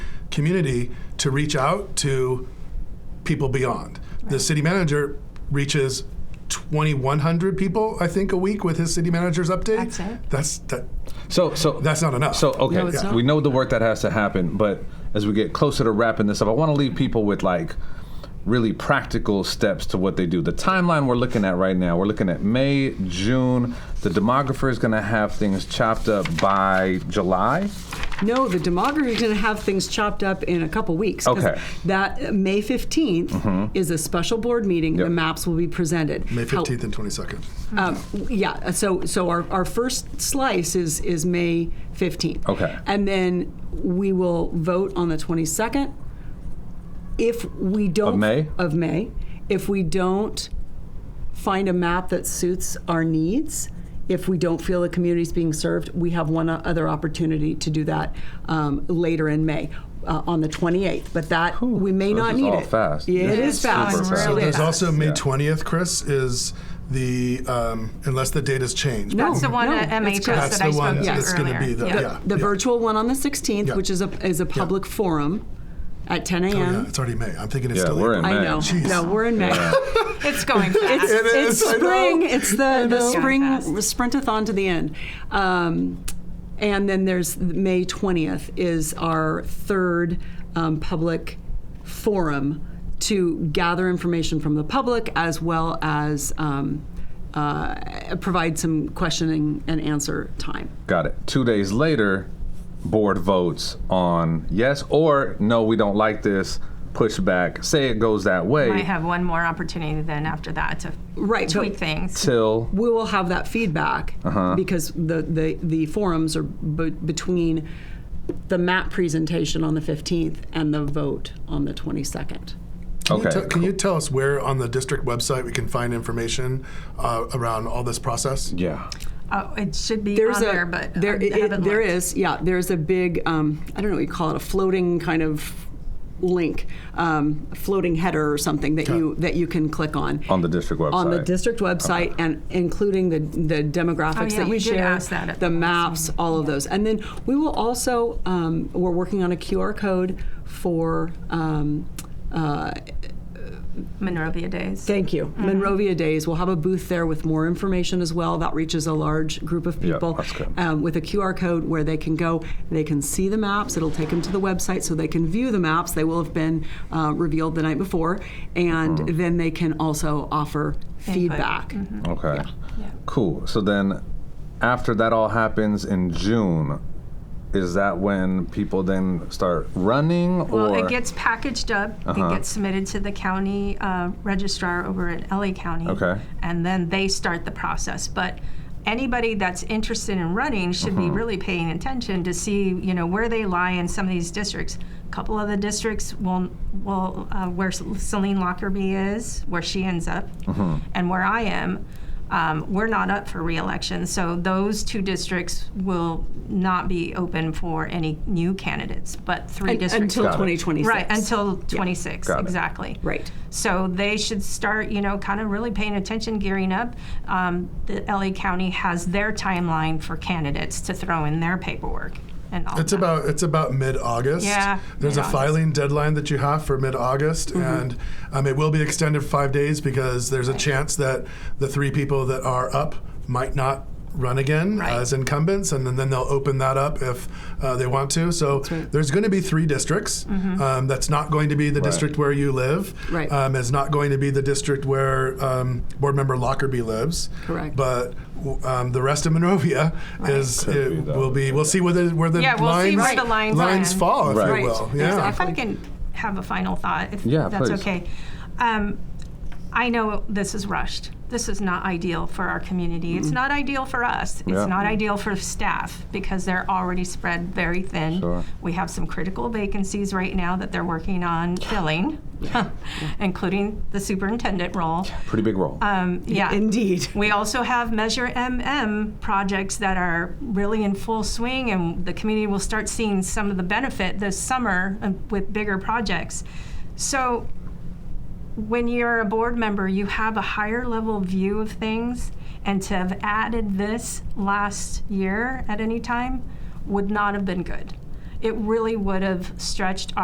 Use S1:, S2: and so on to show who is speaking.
S1: community to reach out to people beyond. The city manager reaches 2,100 people, I think, a week with his city manager's update.
S2: That's it.
S1: That's that.
S3: So, so
S1: That's not enough.
S3: So, okay,
S2: No, it's not.
S3: we know the work that has to happen, but as we get closer to wrapping this up, I want to leave people with like really practical steps to what they do. The timeline we're looking at right now, we're looking at May, June. The demographer is going to have things chopped up by July.
S4: No, the demographer is going to have things chopped up in a couple weeks. 'cause
S3: Okay. Mm-hmm.
S4: That uh, May 15th is a special board meeting. The
S3: Yep.
S4: maps will be presented.
S1: May
S4: How-
S1: 15th and 22nd.
S4: Um, yeah, so, so our, our first slice is, is May 15th.
S3: Okay.
S4: And then we will vote on the 22nd. If we don't.
S3: Of May?
S4: Of May. If we don't find a map that suits our needs, if we don't feel the community's being served, we have one o- other opportunity to do that um, later in May. Uh, on the 28th, but that we may
S3: this
S4: not
S3: is
S4: need
S3: all
S4: it.
S3: fast.
S4: Yeah, it
S3: This
S4: is
S3: is super
S4: fast.
S3: fast.
S4: It
S2: Really
S4: is.
S1: There's also May 20th, Chris, is the, um, unless the date has changed.
S4: No.
S2: That's the one
S4: Oh, No,
S2: at
S4: that's correct.
S2: MHS that
S1: That's
S2: I
S1: the
S2: spoke
S1: one
S2: to
S1: that's gonna
S2: earlier.
S1: be the- yeah.
S4: The virtual one on the 16th,
S1: Yeah. Oh,
S4: which is a is a public forum at 10 a.m.
S1: Yeah, it's already May. I'm thinking it's
S3: Yeah,
S1: still
S3: we're in
S1: April.
S4: I
S3: May.
S4: know.
S1: Jeez.
S4: No, we're in May.
S2: It's going fast.
S4: It's,
S1: It
S4: it's
S1: is, I know.
S4: spring. It's the, the
S2: know.
S4: spring
S2: Going fast.
S4: sprintathon to the end. Um, and then there's May 20th is our third um, public forum to gather information from the public as well as um, uh, provide some questioning and answer time.
S3: Got it. Two days later, board votes on yes or no, we don't like this, push back, say it goes that
S2: I
S3: way
S2: have one more opportunity then after that to
S4: Right, but-
S2: tweak things.
S3: till
S4: we will have that feedback because the, the, the forums are b- between the map presentation on the 15th and the vote on the 22nd.
S1: Can you
S3: Okay,
S1: te- Can you tell us where on the district website we can find information uh, around all this process?
S3: yeah.
S2: Oh, it should be
S4: There's
S2: on
S4: a
S2: there, but
S4: there,
S2: I
S4: it-
S2: haven't
S4: it- there
S2: looked.
S4: is yeah there's a big um, I don't know what you call it a floating kind of link um, floating header or something that you that you can click on
S3: On the district website.
S4: on the district website and including the, the demographics
S2: Oh, yeah,
S4: that you,
S2: you did
S4: share,
S2: ask that at
S4: the
S2: the
S4: maps, all of those. And then we will also, um, we're working on a QR code for, um, uh,
S2: Monrovia Days.
S4: thank you,
S3: Mm-hmm.
S4: Monrovia Days. We'll have a booth there with more information as well. That reaches a large group of
S3: Yeah,
S4: people
S3: that's good.
S4: Um, with a QR code where they can go, they can see the maps. It'll take them to the website so they can view the maps. They will have been uh, revealed the night before. And
S3: Mm-hmm.
S4: then they can also offer feedback.
S2: Mm-hmm.
S3: Okay. Cool. So then, after that all happens in June, is that when people then start running or? Uh-huh.
S2: Well, it gets packaged up. It gets submitted to the county uh, registrar over at LA County.
S3: Okay.
S2: And then they start the process. But anybody that's interested in running should
S3: Uh-huh.
S2: be really paying attention to see, you know, where they lie in some of these districts. A couple of the districts will, will uh, where Celine Lockerbie is, where she ends up,
S3: Uh-huh.
S2: and where I am. Um, we're not up for reelection, so those two districts will not be open for any new candidates. But three districts
S4: until
S3: it.
S4: 2026.
S2: Right, until 26,
S3: Got it.
S2: exactly.
S4: Right.
S2: So they should start, you know, kind of really paying attention, gearing up. Um, the LA County has their timeline for candidates to throw in their paperwork and all
S1: It's
S2: that.
S1: about it's about mid August.
S2: Yeah,
S1: There's a
S2: mid-August. Mm-hmm.
S1: filing deadline that you have for mid August, and um, it will be extended five days because there's a chance that the three people that are up might not run again
S2: Right.
S1: as incumbents, and then, then they'll open that up if uh, they want to. So there's going to be three districts.
S2: Mm-hmm.
S1: Um, that's not going to be the district where you live.
S4: Right.
S1: Um, it's not going to be the district where um, board member Lockerbie lives.
S4: Correct.
S1: But w- um, the rest of Monrovia is
S3: Could be
S1: it
S3: that.
S1: will be. We'll see where the where the
S2: Yeah, we'll
S1: lines,
S2: see where the lines land.
S1: fall, if
S3: Right.
S1: you will.
S4: Right.
S1: Yeah.
S4: Exactly.
S2: If I can have a final thought, if
S3: Yeah,
S2: that's
S3: please.
S2: okay. Um, I know this is rushed. This is not ideal for our community. It's not ideal for us. It's
S3: Mm-hmm. Yeah.
S2: not ideal for staff because they're already spread very thin.
S3: Sure.
S2: We have some critical vacancies right now that they're working on filling, including the superintendent role.
S3: Pretty big role.
S2: Um, yeah.
S4: Indeed.
S2: We also have Measure MM projects that are really in full swing, and the community will start seeing some of the benefit this summer uh, with bigger projects. So, when you're a board member, you have a higher level view of things, and to have added this last year at any time would not have been good. It really would have stretched our